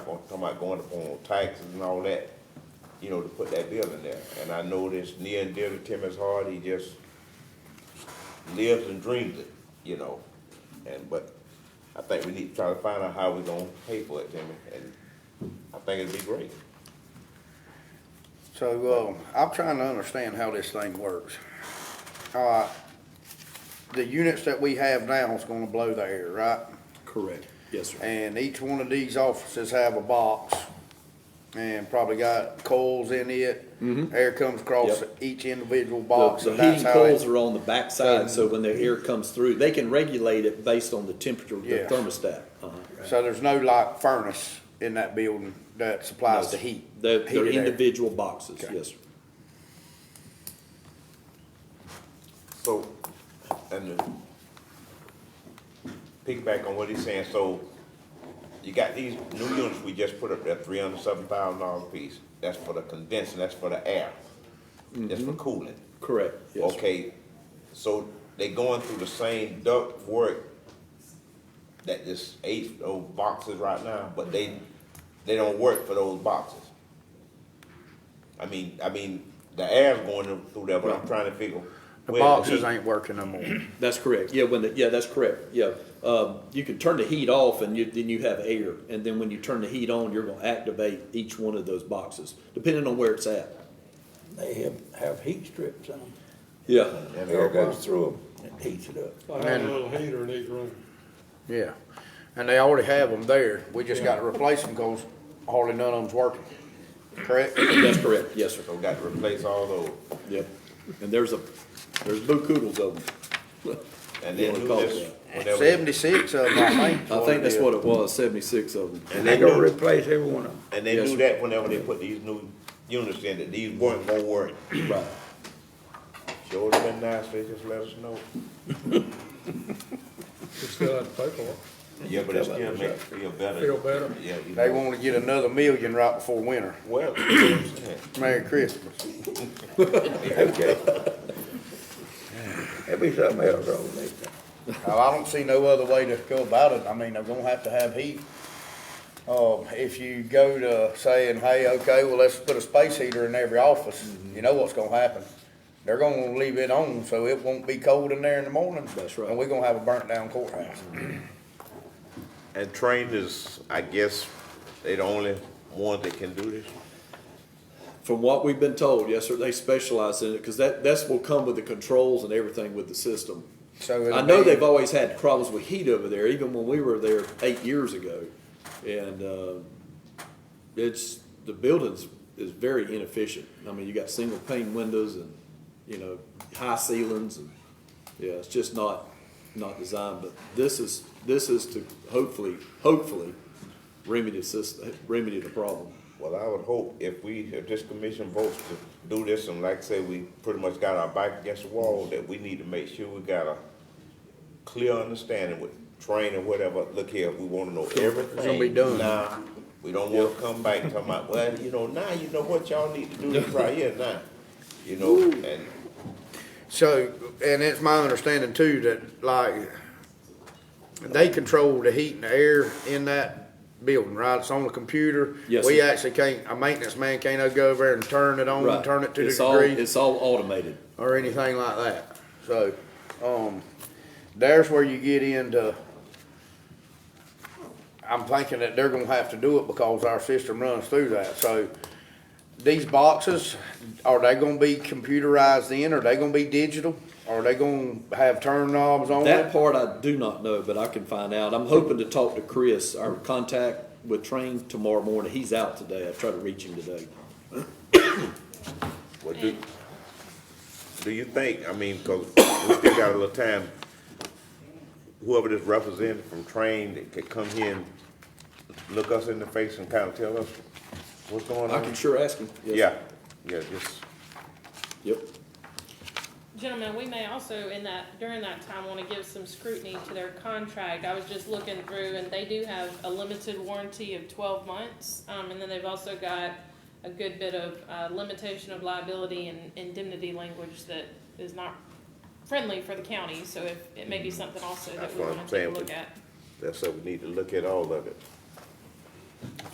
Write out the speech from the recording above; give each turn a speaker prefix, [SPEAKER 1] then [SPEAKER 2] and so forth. [SPEAKER 1] go- talking about going up on taxes and all that, you know, to put that building there. And I know this near and dear to Tim is hard, he just lives and dreams it, you know? And, but I think we need to try to find out how we are gonna pay for it, Timmy, and I think it'd be great.
[SPEAKER 2] So, uh, I'm trying to understand how this thing works. Uh, the units that we have now is gonna blow the air, right?
[SPEAKER 3] Correct. Yes, sir.
[SPEAKER 2] And each one of these offices have a box and probably got coils in it. Air comes across
[SPEAKER 3] Mm-hmm. Yep.
[SPEAKER 2] each individual
[SPEAKER 3] The,
[SPEAKER 2] box
[SPEAKER 3] the
[SPEAKER 2] and that's
[SPEAKER 3] heating
[SPEAKER 2] how
[SPEAKER 3] coils
[SPEAKER 2] it.
[SPEAKER 3] are on the backside, so when the air comes through, they can regulate it based on the temperature of the
[SPEAKER 2] Yeah.
[SPEAKER 3] thermostat. Uh-huh.
[SPEAKER 2] So there's no like furnace in that building that supplies uh, the heat.
[SPEAKER 3] They're, they're
[SPEAKER 2] heated air.
[SPEAKER 3] individual boxes, yes, sir.
[SPEAKER 1] So, and to piggyback on what he's saying, so you got these new units we just put up there, three hundred seven thousand dollar piece. That's for the condensing, that's for the air, that's for cooling.
[SPEAKER 3] Correct, Mm-hmm. yes, sir.
[SPEAKER 1] Okay, so they going through the same duct work that this eight, those boxes right now, but they, they don't work for those boxes. I mean, I mean, the air's going in through there, but I'm trying to figure.
[SPEAKER 2] The
[SPEAKER 1] where
[SPEAKER 2] boxes
[SPEAKER 1] heat-
[SPEAKER 2] ain't working no more.
[SPEAKER 3] That's correct, yeah, when the, yeah, that's correct, yeah. Um, you can turn the heat off and you, then you have air, and then when you turn the heat on, you're gonna activate each one of those boxes, depending on where it's at.
[SPEAKER 4] They have, have heat strips on them.
[SPEAKER 3] Yeah,
[SPEAKER 1] And they're-
[SPEAKER 4] Air goes through them and heats it up.
[SPEAKER 5] I have a little heater in each room.
[SPEAKER 2] Yeah, and they already have them there, we just gotta replace them, cause hardly none of them's working, correct?
[SPEAKER 3] that's correct, yes, sir,
[SPEAKER 1] So we got to replace all those.
[SPEAKER 3] yeah. And there's a, there's boo-koodles of them.
[SPEAKER 1] And then
[SPEAKER 3] Wanna
[SPEAKER 1] do
[SPEAKER 3] call it
[SPEAKER 1] this, whenever, and
[SPEAKER 2] Seventy-six of them, I think. is
[SPEAKER 3] I think that's
[SPEAKER 2] it
[SPEAKER 3] what it was, seventy-six of them.
[SPEAKER 4] And
[SPEAKER 1] they
[SPEAKER 4] they gonna
[SPEAKER 1] do,
[SPEAKER 4] replace every one of them.
[SPEAKER 1] and they
[SPEAKER 3] Yes,
[SPEAKER 1] do
[SPEAKER 3] sir.
[SPEAKER 1] that whenever they put these new units in, that these weren't gonna work.
[SPEAKER 3] Right.
[SPEAKER 1] Sure would've been nice, they just let us know.
[SPEAKER 5] We still have to pay for it.
[SPEAKER 1] Yeah, but it still make it feel better.
[SPEAKER 5] Feel better.
[SPEAKER 1] Yeah. you
[SPEAKER 2] is. They
[SPEAKER 1] know.
[SPEAKER 2] wanna get another million right before winter,
[SPEAKER 1] Well, yeah,
[SPEAKER 2] Merry Christmas.
[SPEAKER 4] Okay. That'd be something else over there.
[SPEAKER 2] Now, I don't see no other way to go about it, I mean, they're gonna have to have heat. Um, if you go to saying, hey, okay, well, let's put a space heater in every office, you know what's gonna happen. They're gonna leave it on, so it won't be cold in there in the morning.
[SPEAKER 3] That's right.
[SPEAKER 2] And we're gonna have a burnt down courthouse.
[SPEAKER 1] and trained is, I guess, they the only ones that can do this.
[SPEAKER 3] From what we've been told, yes, sir, they specialize in it, because that, that's will come with the controls and everything with the system.
[SPEAKER 2] So it'll
[SPEAKER 3] I know
[SPEAKER 2] be-
[SPEAKER 3] they've always had problems with heat over there, even when we were there eight years ago. And, uh, it's, the building's, is very inefficient. I mean, you got single pane windows and, you know, high ceilings and, yeah, it's just not, not designed. But this is, this is to hopefully, hopefully remedy the system, remedy the problem.
[SPEAKER 1] Well, I would hope if we, if this commission votes to do this, and like I say, we pretty much got our back against the wall, that we need to make sure we got a clear understanding with training, whatever, look here, we wanna know everything.
[SPEAKER 2] gonna be done.
[SPEAKER 1] Now, we don't wanna come back and talk about, well, you know, now you know what y'all need to do this right here now, you know, and
[SPEAKER 2] So, and it's my understanding too that like, they control the heat and the air in that building, right? It's on the computer.
[SPEAKER 3] Yes,
[SPEAKER 2] We
[SPEAKER 3] sir.
[SPEAKER 2] actually can't, a maintenance man can't go over there and turn it on,
[SPEAKER 3] Right.
[SPEAKER 2] and turn it to the
[SPEAKER 3] It's all-
[SPEAKER 2] degree
[SPEAKER 3] It's all automated.
[SPEAKER 2] or anything like that. So, um, there's where you get into, I'm thinking that they're gonna have to do it because our system runs through that. So these boxes, are they gonna be computerized in? Are they gonna be digital? Are they gonna have turn knobs on
[SPEAKER 3] That
[SPEAKER 2] it?
[SPEAKER 3] part I do not know, but I can find out. I'm hoping to talk to Chris, our contact with Train tomorrow morning. He's out today. I tried to reach him today.
[SPEAKER 1] Well, do, do you think, I mean, cause we still got a little time, whoever this representative from Train that could come here and look us in the face and kinda tell us what's going
[SPEAKER 3] I can
[SPEAKER 1] on?
[SPEAKER 3] sure ask him. Yes.
[SPEAKER 1] Yeah, yeah, just,
[SPEAKER 3] Yep.
[SPEAKER 6] Gentlemen, we may also in that, during that time, wanna give some scrutiny to their contract. I was just looking through and they do have a limited warranty of twelve months. Um, and then they've also got a good bit of, uh, limitation of liability and indemnity language that is not friendly for the county. So if, it may be something also that
[SPEAKER 1] Mm-hmm. That's
[SPEAKER 6] we
[SPEAKER 1] what I'm
[SPEAKER 6] wanna take a
[SPEAKER 1] saying.
[SPEAKER 6] look at.
[SPEAKER 1] that's what we need to look at all of it.